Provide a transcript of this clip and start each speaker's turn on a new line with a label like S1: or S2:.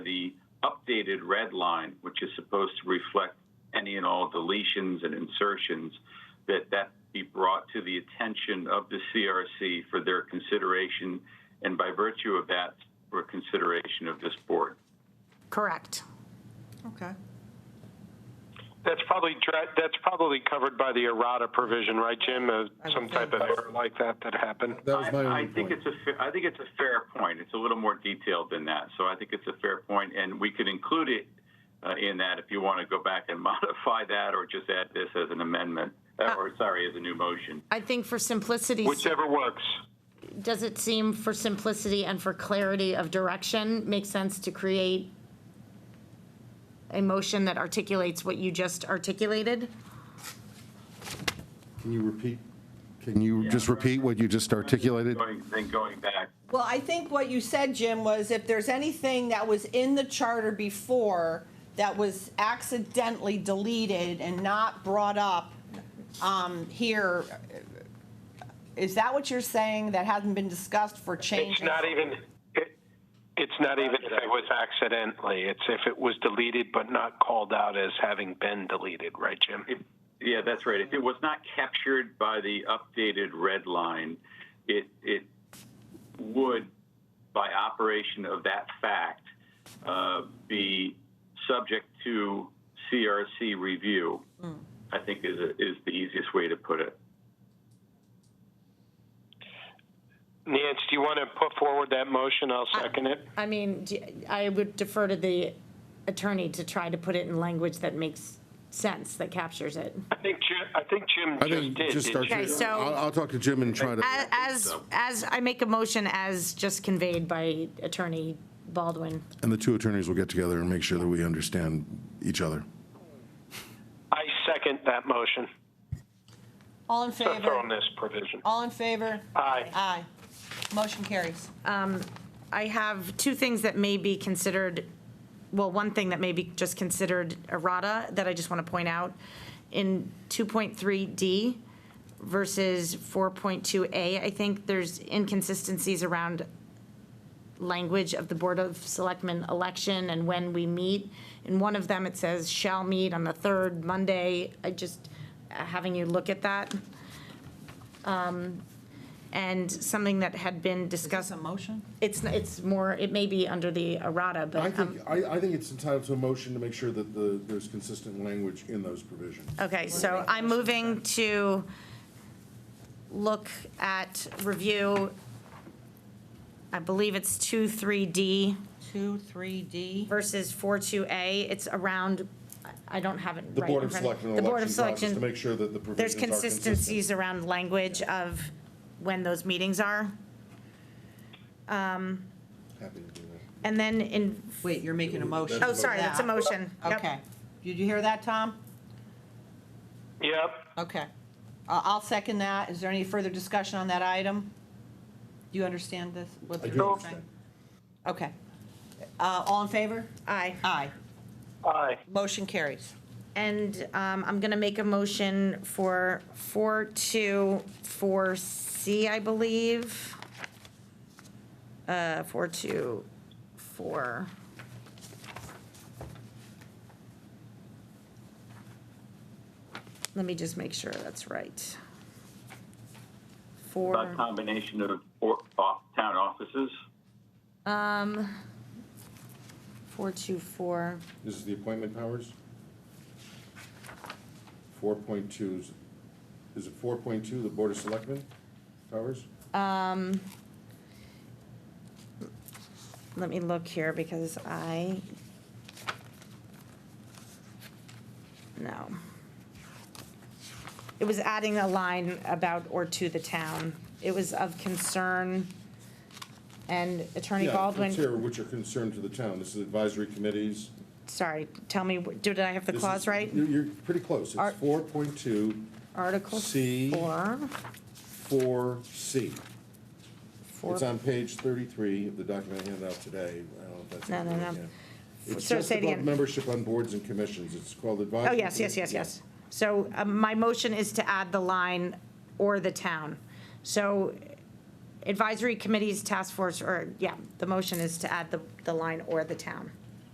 S1: updated red line, which is supposed to reflect any and all deletions and insertions, that that be brought to the attention of the CRC for their consideration, and by virtue of that, for consideration of this board.
S2: Correct.
S3: Okay.
S4: That's probably dra- that's probably covered by the errata provision, right, Jim? Uh, some type of error like that that happened.
S5: That was my
S1: I-
S5: only
S1: I think
S5: point.
S1: it's a, fa- I think it's a fair point. It's a little more detailed than that, so I think it's a fair point, and we could include it uh, in that if you want to go back and modify that, or just add this as an amendment, uh, or sorry, as a new motion.
S2: I think for simplicity,
S4: Whichever works.
S2: does it seem for simplicity and for clarity of direction, makes sense to create a motion that articulates what you just articulated?
S5: Can you repeat, can you just repeat what you just articulated?
S1: Going, then going back,
S3: Well, I think what you said, Jim, was if there's anything that was in the charter before that was accidentally deleted and not brought up um, here, is that what you're saying that hasn't been discussed for changes?
S4: It's not even. It, it's not even if it was accidentally. It's if it was deleted but not called out as having been deleted, right, Jim?
S1: yeah, that's right. If it was not captured by the updated red line, it, it would, by operation of that fact, uh, be subject to CRC review, I think is, a- is the easiest way to put it.
S4: Nance, do you want to put forward that motion? I'll second it.
S2: I mean, do- I would defer to the attorney to try to put it in language that makes sense, that captures it.
S4: I think Jim. I think Jim
S5: I
S4: just
S5: think
S4: did.
S5: just
S4: did
S5: start,
S4: you?
S2: Okay, so- uh,
S5: I'll, I'll talk to Jim and try to,
S2: As, as, I make a motion as just conveyed by Attorney Baldwin.
S5: and the two attorneys will get together and make sure that we understand each other.
S4: I second that motion.
S3: All in
S4: So throw in
S3: favor?
S4: this provision.
S3: All in favor?
S4: Aye.
S3: Aye. Motion carries.
S2: I have two things that may be considered, well, one thing that may be just considered errata that I just want to point out. In 2.3D versus 4.2A, I think there's inconsistencies around language of the Board of Selectmen election and when we meet. In one of them, it says shall meet on the third Monday. I just, uh, having you look at that. Um, And something that had been discussed.
S3: motion?
S2: It's, it's more, it may be under the errata,
S5: I
S2: but, um,
S5: think, I, I think it's entitled to a motion to make sure that the, there's consistent language in those provisions.
S2: okay, so I'm moving to look at review, I believe it's two, three D
S3: Two, three, D.
S2: versus four, two A. It's around, I don't have it
S5: The
S2: right in
S5: Board of
S2: front of-
S5: Selectmen
S2: The Board
S5: election
S2: of
S5: process, to
S2: Selection,
S5: make sure that the provisions
S2: there's
S5: are consistent.
S2: consistencies around language of when those meetings are.
S5: Happy to do that.
S2: And then in,
S3: Wait, you're making a motion.
S2: oh, sorry, that's a
S3: Yeah.
S2: motion. Yep.
S3: Okay. Did you hear that, Tom?
S4: Yep.
S3: Okay. Uh, I'll second that. Is there any further discussion on that item? Do you understand this? what
S5: I
S3: they're
S5: do
S3: saying?
S5: understand.
S3: Okay. Uh, All in favor?
S2: Aye.
S3: Aye.
S4: Aye.
S3: Motion carries.
S2: And um, I'm going to make a motion for 424C, I believe. Uh, 424. Let me just make sure that's right.
S1: About
S2: Four,
S1: combination of or- off, town offices,
S2: um, 424,
S5: This is the appointment powers? Four point two, is, is it four point two, the Board of Selectmen powers?
S2: let me look here because I, no. It was adding a line about or to the town. It was of concern. And Attorney
S5: Yeah, it's
S2: Baldwin,
S5: here, Which are concerned to the town, this is advisory committees.
S2: sorry, tell me, did I have the
S5: This is-
S2: clause right?
S5: You're, you're pretty close,
S2: Are-
S5: it's four point two,
S2: Article
S5: C.
S2: four,
S5: four C.
S2: four.
S5: It's on page thirty-three of the document I handed out today, I don't know if that's.
S2: No, no, no.
S5: Yeah. It's
S2: So
S5: just
S2: say it
S5: about
S2: again.
S5: membership on boards and commissions, it's called advisory.
S2: Oh, yes, yes, yes,
S5: committee.
S2: yes. So um, my motion is to add the line or the town. So advisory committees, task force, or, yeah, the motion is to add the, the line or the town.